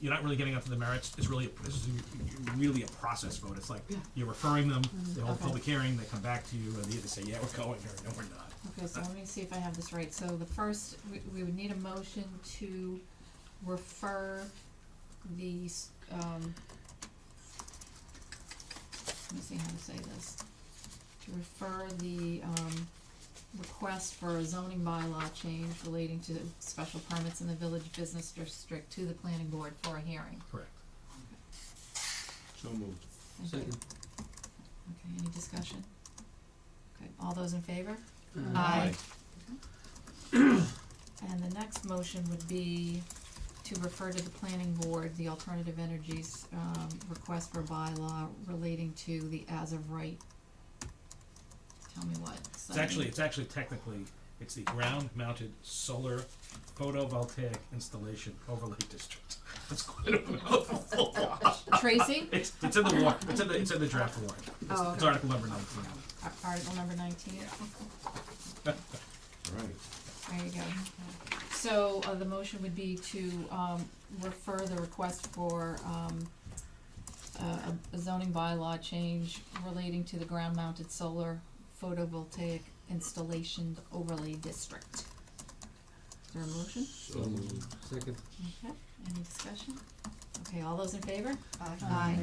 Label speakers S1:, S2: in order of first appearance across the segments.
S1: you're not really getting up to the merits. It's really a, this is a, really a process vote. It's like you're referring them. They hold a
S2: Mm-hmm. okay.
S1: public hearing. They come back to you, and they either say yeah we're going or no we're not.
S2: Okay, so let me see if I have this right. So the first, we, we would need a motion to refer the, s- um, let me see how to say this. To refer the, um, request for a zoning bylaw change relating to special permits in the village business district to the planning board for a hearing.
S1: Correct.
S3: So moved.
S2: Thank you.
S4: Second.
S2: Okay, any discussion? Okay, all those in favor?
S3: Aye.
S2: And the next motion would be to refer to the planning board, the alternative energies, um, request for bylaw relating to the as of right. Tell me what.
S1: It's actually it's actually technically it's the ground mounted solar photovoltaic installation overlay district. That's quite a mouthful.
S2: Tracy,
S1: It's, it's in the warrant. It's in the it's in the draft warrant. It's,
S2: Oh,
S1: it's
S2: okay.
S1: article number nineteen.
S2: Ar- article number nineteen,
S3: Right.
S2: there you go. So, uh, the motion would be to, um, refer the request for, um, a a zoning bylaw change relating to the ground mounted solar photovoltaic installation overlay district. Is there a motion?
S3: So moved.
S4: Second.
S2: Okay, any discussion? Okay, all those in favor?
S4: Aye.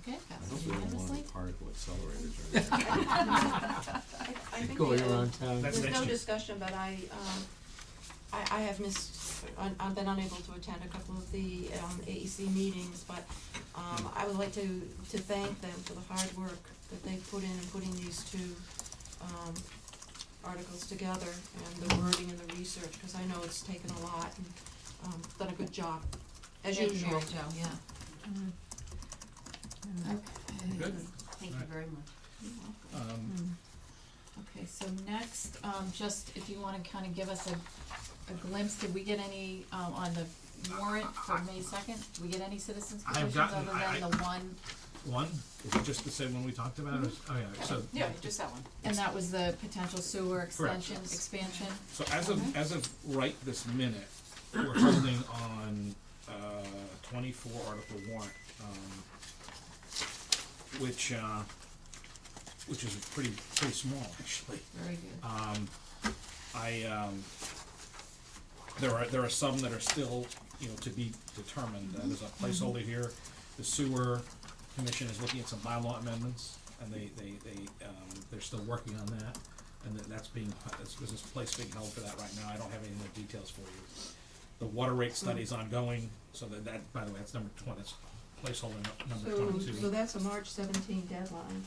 S2: Okay,
S3: I
S2: passes
S3: hope they don't
S2: unanimously.
S3: want particle accelerators or anything.
S5: I think
S4: Going
S5: the, uh,
S4: around town.
S1: That's
S5: There's
S1: next
S5: no
S1: year.
S5: discussion, but I, um, I, I have missed, un- I've been unable to attend a couple of the, um, AEC meetings, but, um, I would like to, to thank them for the hard work that they put in in putting these two, um, articles together and the wording and the research, because I know it's taken a lot and, um, done a good job, as
S2: Thank you,
S5: usual.
S2: Mary Jo, yeah. Okay.
S1: Good.
S6: Thank you
S1: Alright.
S6: very much.
S2: You're welcome.
S1: Um,
S2: Okay, so next, um, just if you wanna kinda give us a, a glimpse, did we get any, um, on the warrant for May second? Did we get any citizens
S1: I have
S2: petitions other
S1: gotten- I-
S2: than
S1: I-
S2: the one,
S1: one is it just the same one we talked about? Or-
S2: Mm-hmm.
S1: Oh yeah. So
S6: Yeah, just that one.
S2: and that was the potential sewer extension,
S6: Yes.
S2: expansion?
S1: So as of,
S2: Okay.
S1: as of right this minute, we're holding on, uh, twenty-four article warrant, um, which, uh, which is pretty, pretty small, actually.
S2: Very good.
S1: Um, I, um, there are, there are some that are still, you know, to be determined, Uh, there's a placeholder here. The sewer commission is looking at some bylaw amendments, and they, they, they, um, they're still working on that. And that, that's being, that's, there's this place being held for that right now, I don't have any more details for you. The water rate study's ongoing, so that, that, by the way, that's number twenty, that's placeholder nu- number twenty-two.
S5: So, so that's a March seventeen deadline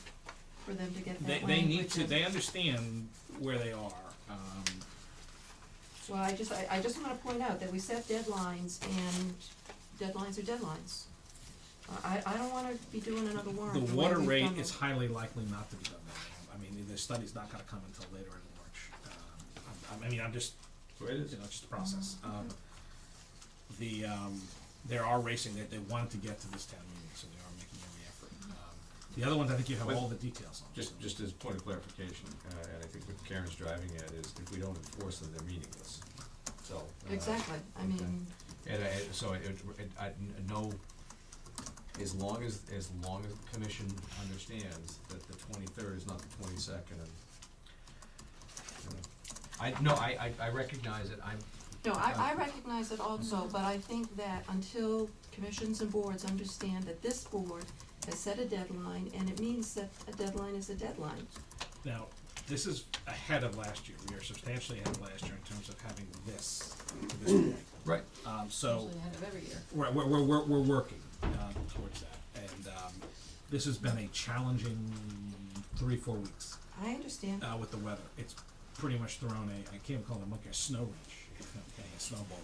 S5: for them to get
S1: They,
S5: that language.
S1: they need to,
S5: in.
S1: they understand where they are, um,
S5: Well, I just, I, I just wanna point out that we set deadlines and deadlines are deadlines. I, I don't wanna be doing another
S1: The
S5: warrant the way
S1: water
S5: we've
S1: rate
S5: done
S1: is
S5: them.
S1: highly likely not to be done by then. I mean, the study's not gonna come until later in March. Um, I'm- I'm- I mean, I'm just,
S3: So it is.
S1: you know, it's just a process.
S5: Mm-hmm.
S1: Um, The, um, they are racing, they, they wanted to get to this town meeting, so they are making every effort.
S5: Mm-hmm.
S1: Um, The other ones, I think you have all the details on.
S3: Just, just as a point of clarification, uh, and I think what Karen's driving at is if we don't enforce them, they're meaningless. So. uh,
S5: Exactly, I mean,
S3: And I, and so it, it, I n- know, as long as, as long as the commission understands that the twenty-third is not the twenty-second and. you know. I, no, I, I, I recognize it, I'm,
S5: no, I, I recognize it also, but I think that until commissions and boards understand that this board has set a deadline, and it means that a deadline is a deadline.
S1: Now, this is ahead of last year. We are substantially ahead of last year in terms of having this, to this point.
S3: right,
S1: Um, so.
S2: Usually the end of every year.
S1: We're, we're, we're, we're, we're working um, towards that, and um, this has been a challenging three, four weeks
S5: I understand,
S1: uh, with the weather. It's pretty much thrown a, I can't call it a monkey, a snow wrench, okay, a snowball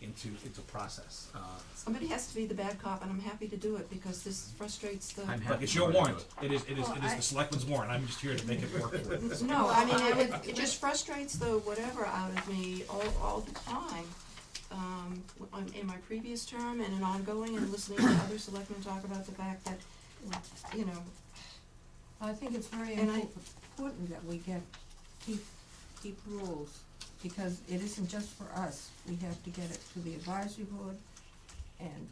S1: into into process. Uh,
S5: somebody has to be the bad cop, and I'm happy to do it, because this frustrates the.
S3: I'm
S1: but
S3: happy
S1: it's
S3: to
S1: your
S3: do it.
S1: warrant. It is it is it
S5: Well,
S1: is
S5: I-
S1: the selectman's warrant. I'm just here to make it work for it.
S5: No, I mean, it, it just frustrates the whatever out of me all, all the time. Um, w- on- in my previous term and in ongoing and listening to other selectmen talk about the fact that, you know,
S7: I think it's very
S5: And I-
S7: impor- important that we get, keep, keep rules, because it isn't just for us. We have to get it to the advisory board and